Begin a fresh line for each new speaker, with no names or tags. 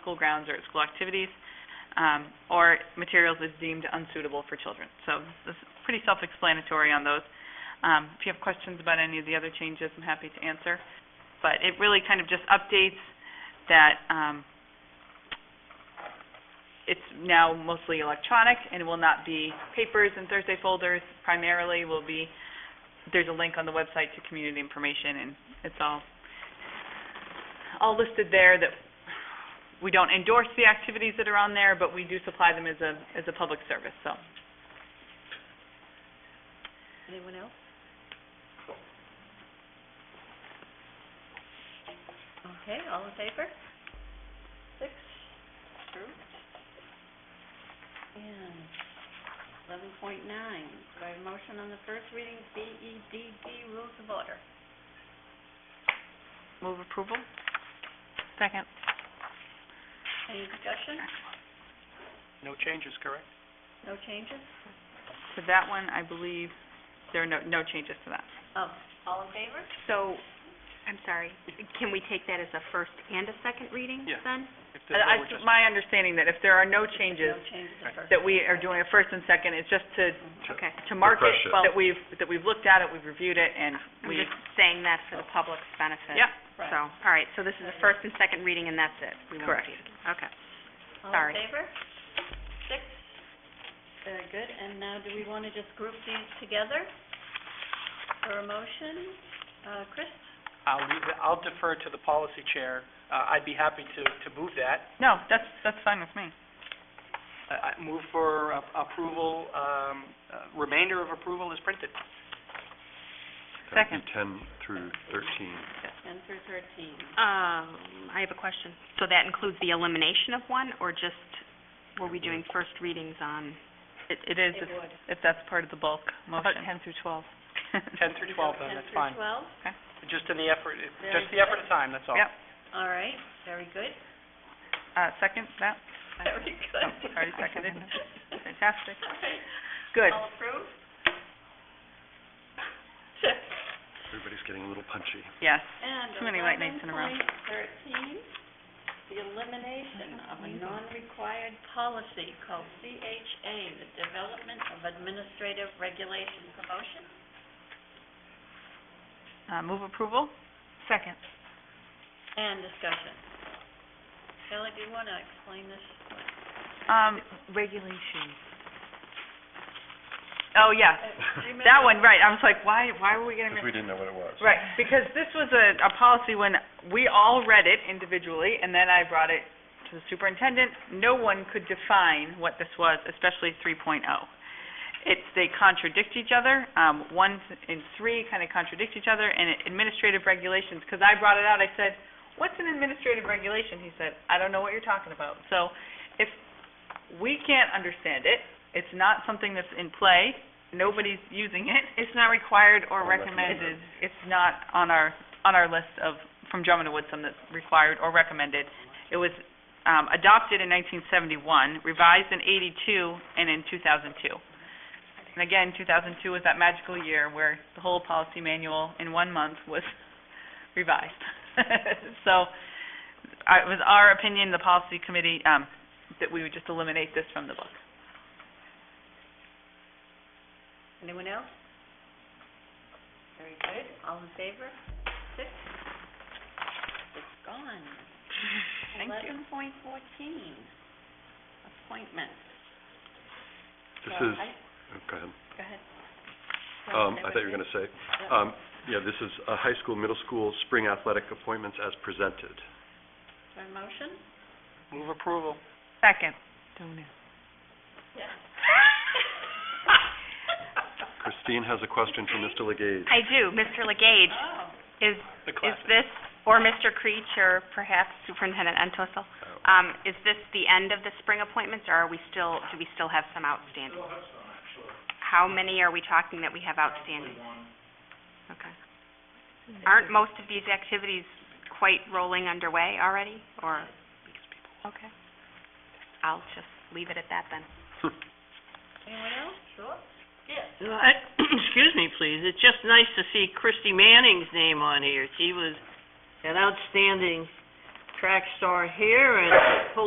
school grounds or at school activities, um, or materials that's deemed unsuitable for children. So this is pretty self-explanatory on those. Um, If you have questions about any of the other changes, I'm happy to answer. But it really kind of just updates that um, it's now mostly electronic and it will not be papers and Thursday folders primarily, will be, there's a link on the website to community information and it's all, all listed there that we don't endorse the activities that are on there, but we do supply them as a, as a public service, so.
Anyone else? Okay, all in favor? Six, approved. And eleven point nine, do I have a motion on the first reading, B E D D, rules of order?
Move approval? Second.
Any discussion?
No changes, correct?
No changes?
To that one, I believe there are no, no changes to that.
Oh, all in favor?
So, I'm sorry, can we take that as a first and a second reading
Yeah.
then?
If
I-
there's no,
I-
we're just-
My understanding that if there are no changes,
No changes at first.
that we are doing a first and second, it's just to,
Okay.
to mark it,
Refresh it.
that we've, that we've looked at it, we've reviewed it, and
I'm
we,
just saying that for the public's benefit.
Ah, yeah,
Right.
So, all right, so this is a first and second reading and that's it? We won't
Correct.
read it. Okay.
All
Sorry.
in favor? Six. Very good, and now do we want to just group these together for a motion? Uh, Chris?
I'll leave- I'll defer to the policy chair. Uh, I'd be happy to, to move that.
no,
Uh,
that's, that's fine with me.
I I move for a- approval, um, uh, remainder of approval is printed.
That would
Second.
be ten through thirteen.
Ten through thirteen.
Um, I have a question. So that includes the elimination of one or just, were we doing first readings on?
It, it is, if-
It would.
if that's part of the bulk motion. ten through twelve?
10 through 12, then, that's fine.
Ten through twelve,
Just in the effort,
Very
just the effort of time, that's all.
Yep,
all right, very good.
uh, second, that,
Very good.
oh, already seconded, fantastic,
All right.
good.
All approved?
Everybody's getting a little punchy.
Yes,
And
Too many white nights in a row.
11.13, the elimination of a non-required policy called CHA, the Development of Administrative Regulation Promotion.
uh, move approval? Second.
And discussion. Shelley, do you want to explain this?
Um. Regulation. Oh, yes, that one, right, I was like, why, why were we getting rid
Because we didn't know what it was.
Right, because this was a, a policy when we all read it individually, and then I brought it to the superintendent. No one could define what this was, especially 3.0. It's, they contradict each other. Um, one and three kind of contradict each other, and it- administrative regulations, because I brought it out, I said, what's an administrative regulation? He said, I don't know what you're talking about. So if we can't understand it, it's not something that's in play, nobody's using it. It's not required
Or recommended.
It's not on our, on our list of, from Drummond to Woodsum that's required or recommended. It was um, adopted in 1971, revised in 82, and in 2002. And again, 2002 was that magical year where the whole policy manual in one month was revised. So I- it was our opinion, the policy committee, um, that we would just eliminate this from the book.
Anyone else? Very good. All in favor? Six? It's gone.
Thank you.
Eleven point fourteen, appointments.
This
So
is,
I-
oh, go ahead.
Go ahead.
Um, I thought you were gonna say, um, yeah, this is uh, high school, middle school, spring athletic appointments as presented.
For a motion?
Move approval.
Second.
Yes.
Christine has a question for Mr. Legage.
I do. Mr. Legage,
Oh,
is,
The
is
classic.
this, or Mr. Creech, or perhaps Superintendent Entwistle,
Oh.
um, is this the end of the spring appointments or are we still, do we still have some outstanding? How many are we talking that we have outstanding? Okay. Aren't most of these activities quite rolling underway already, or? Okay. I'll just leave it at that then.
anyone else? Sure. Yes.
Excuse me, please. It's just nice to see Christy Manning's name on here. She was an outstanding
track star here and pole